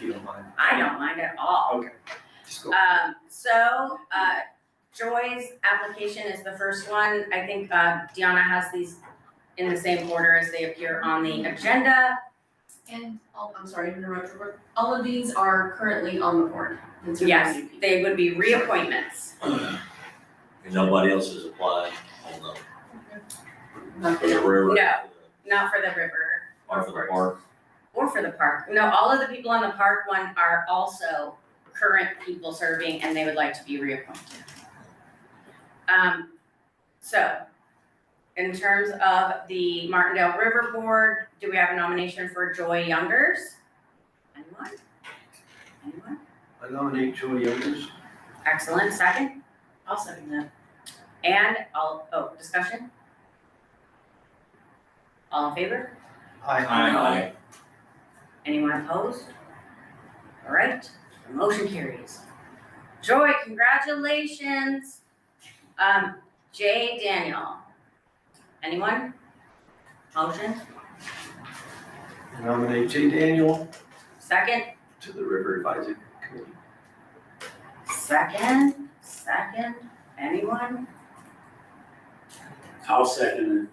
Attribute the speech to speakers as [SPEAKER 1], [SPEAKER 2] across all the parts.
[SPEAKER 1] don't mind.
[SPEAKER 2] I don't mind at all.
[SPEAKER 1] Okay, just go.
[SPEAKER 2] Um, so, uh, Joy's application is the first one. I think, uh, Deanna has these in the same order as they appear on the agenda.
[SPEAKER 3] And,
[SPEAKER 4] oh,
[SPEAKER 3] all I'm sorry, to interrupt, Robert. all of these are currently on the board. It's your
[SPEAKER 2] Yes,
[SPEAKER 3] IUP.
[SPEAKER 2] they would be reappointments.
[SPEAKER 5] And nobody else is applying on the, for
[SPEAKER 3] Nothing
[SPEAKER 5] the
[SPEAKER 3] else.
[SPEAKER 5] river.
[SPEAKER 2] No. Not for the river
[SPEAKER 5] Or for the park.
[SPEAKER 2] or for the park. No, all of the people on the park one are also current people serving and they would like to be reappointed. Um, so in terms of the Martindale River Board, do we have a nomination for Joy Youngers? Anyone? Anyone?
[SPEAKER 1] I nominate Joy Youngers.
[SPEAKER 2] Excellent. Second?
[SPEAKER 4] I'll second that.
[SPEAKER 2] And all, oh, discussion? All in favor?
[SPEAKER 5] Aye.
[SPEAKER 2] Anyone opposed? All right, the motion carries. Joy, congratulations. Um, Jay Daniel. Anyone? Motion,
[SPEAKER 1] I Nominate Jay Daniel
[SPEAKER 2] second,
[SPEAKER 1] to the River Advisory Committee.
[SPEAKER 2] second, second, anyone?
[SPEAKER 6] I'll second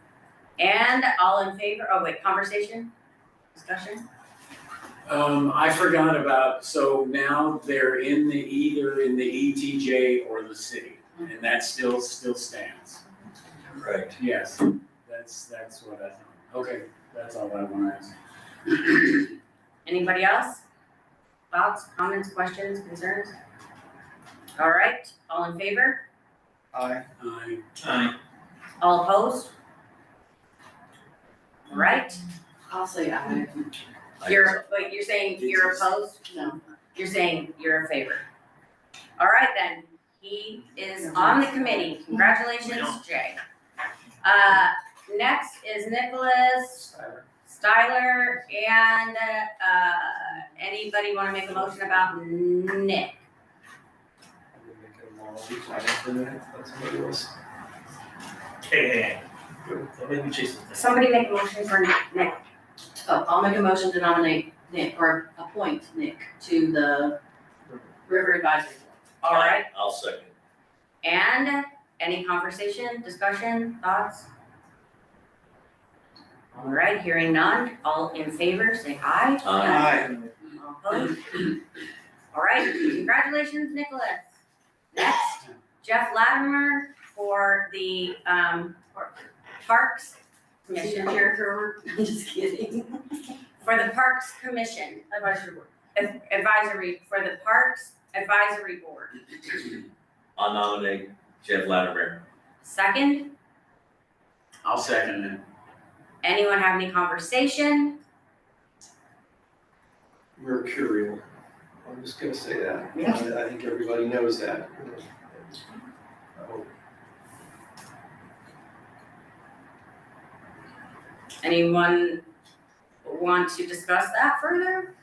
[SPEAKER 2] And all in favor, oh wait, conversation, discussion?
[SPEAKER 6] it. Um, I forgot about, so now they're in the, either in the ETJ or the city, and that still, still stands.
[SPEAKER 5] Right.
[SPEAKER 6] Yes, that's, that's what I thought. Okay, that's all I want to ask.
[SPEAKER 2] Anybody else? Thoughts, comments, questions, concerns? All right, all in favor?
[SPEAKER 1] Aye.
[SPEAKER 6] I,
[SPEAKER 5] Aye.
[SPEAKER 2] All opposed? Right,
[SPEAKER 4] I'll say aye.
[SPEAKER 2] Mm-hmm. you're, but you're saying you're opposed,
[SPEAKER 4] No.
[SPEAKER 2] you're saying you're in favor. All right then, he is on the committee, congratulations, Jay. Uh, next is Nicholas Styler and, uh, anybody wanna make a motion about Nick?
[SPEAKER 1] I'm gonna make it a long week, I don't think that's what it was.
[SPEAKER 7] Okay, let me chase this. thing.
[SPEAKER 2] Somebody make a motion for Nick,
[SPEAKER 4] Oh, I'll make a motion to nominate Nick or appoint Nick to the River Advisory
[SPEAKER 2] all right?
[SPEAKER 5] I'll second.
[SPEAKER 2] And any conversation, discussion, thoughts? All right, hearing none, all in favor, say aye.
[SPEAKER 5] Aye.
[SPEAKER 2] All opposed? All right, congratulations, Nicholas. Next, Jeff Latimer for the um Parks
[SPEAKER 4] Board.
[SPEAKER 2] Commission,
[SPEAKER 4] Character, I'm just kidding.
[SPEAKER 2] for the Parks Commission. Advisory Board. Advisory, for the Parks Advisory Board.
[SPEAKER 5] I'll nominate Jeff Latimer.
[SPEAKER 2] Second,
[SPEAKER 6] I'll second it.
[SPEAKER 2] anyone have any conversation?
[SPEAKER 1] Mercurial. I'm just gonna say that. I, I think everybody knows that. Oh,
[SPEAKER 2] Anyone want to discuss that further?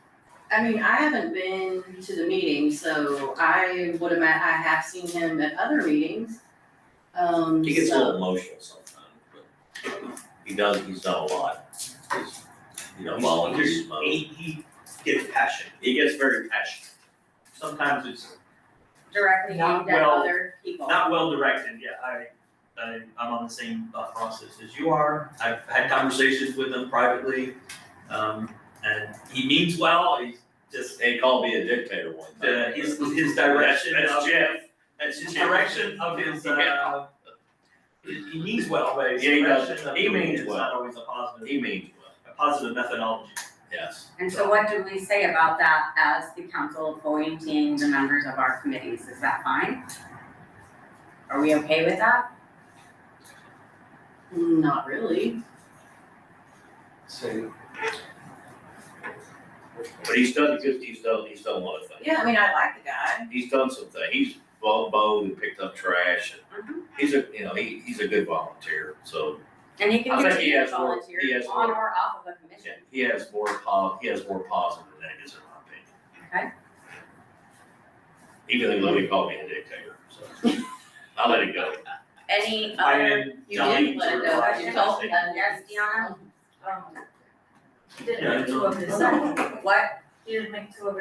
[SPEAKER 4] I mean, I haven't been to the meeting, so I would have, I have seen him at other meetings. Um,
[SPEAKER 5] He gets a
[SPEAKER 4] so-
[SPEAKER 5] little emotional sometimes, but he does, he's done a lot. He's, You know, volunteers,
[SPEAKER 7] He's- he's- He, he gets passionate,
[SPEAKER 5] he gets very passionate.
[SPEAKER 7] sometimes it's
[SPEAKER 2] Directly
[SPEAKER 7] Not
[SPEAKER 2] aimed at
[SPEAKER 7] well-
[SPEAKER 2] other people.
[SPEAKER 7] not well directed, yeah, I, I, I'm on the same thought process as you are. I've had conversations with him privately, um, and he means well, he's just,
[SPEAKER 5] They called me a dictator one
[SPEAKER 7] uh,
[SPEAKER 5] time.
[SPEAKER 7] his, his direction of.
[SPEAKER 5] That's Jeff.
[SPEAKER 7] That's his direction of his, uh, he he means well, but his
[SPEAKER 5] Yeah, he does.
[SPEAKER 7] direction of
[SPEAKER 5] He
[SPEAKER 7] the way
[SPEAKER 5] means
[SPEAKER 7] is
[SPEAKER 5] well.
[SPEAKER 7] not always a positive,
[SPEAKER 5] He means well,
[SPEAKER 7] a positive methodology.
[SPEAKER 5] yes.
[SPEAKER 2] And so what do we say about that as the council appointing the members of our committees? Is that fine? Are we okay with that?
[SPEAKER 4] Not really.
[SPEAKER 1] Say,
[SPEAKER 5] But he's done, good. he's done, he's done a lot of things.
[SPEAKER 4] Yeah, I mean, I like the guy.
[SPEAKER 5] he's done some things. He's bo- bowed and picked up trash. and He's a, you know, he, he's a good volunteer, so,
[SPEAKER 2] And he can
[SPEAKER 5] I think he
[SPEAKER 2] continue to
[SPEAKER 5] has more-
[SPEAKER 2] volunteer
[SPEAKER 5] he has
[SPEAKER 2] on
[SPEAKER 5] more.
[SPEAKER 2] or off of a
[SPEAKER 5] yeah,
[SPEAKER 2] commission.
[SPEAKER 5] he has more pos, he has more positive than negatives in my
[SPEAKER 2] Okay.
[SPEAKER 5] opinion. Even though he called me a dictator, so, I let it go.
[SPEAKER 2] Any
[SPEAKER 7] I
[SPEAKER 2] other, Uh,
[SPEAKER 7] am
[SPEAKER 4] Uh, You
[SPEAKER 7] dying
[SPEAKER 4] did let
[SPEAKER 7] to
[SPEAKER 4] it go.
[SPEAKER 7] revise
[SPEAKER 4] You
[SPEAKER 7] it.
[SPEAKER 4] told us.
[SPEAKER 2] yes, Deanna?
[SPEAKER 8] Um, He didn't
[SPEAKER 7] Yeah, I
[SPEAKER 8] make two
[SPEAKER 7] know.
[SPEAKER 8] of his own,
[SPEAKER 2] What
[SPEAKER 8] he didn't make two of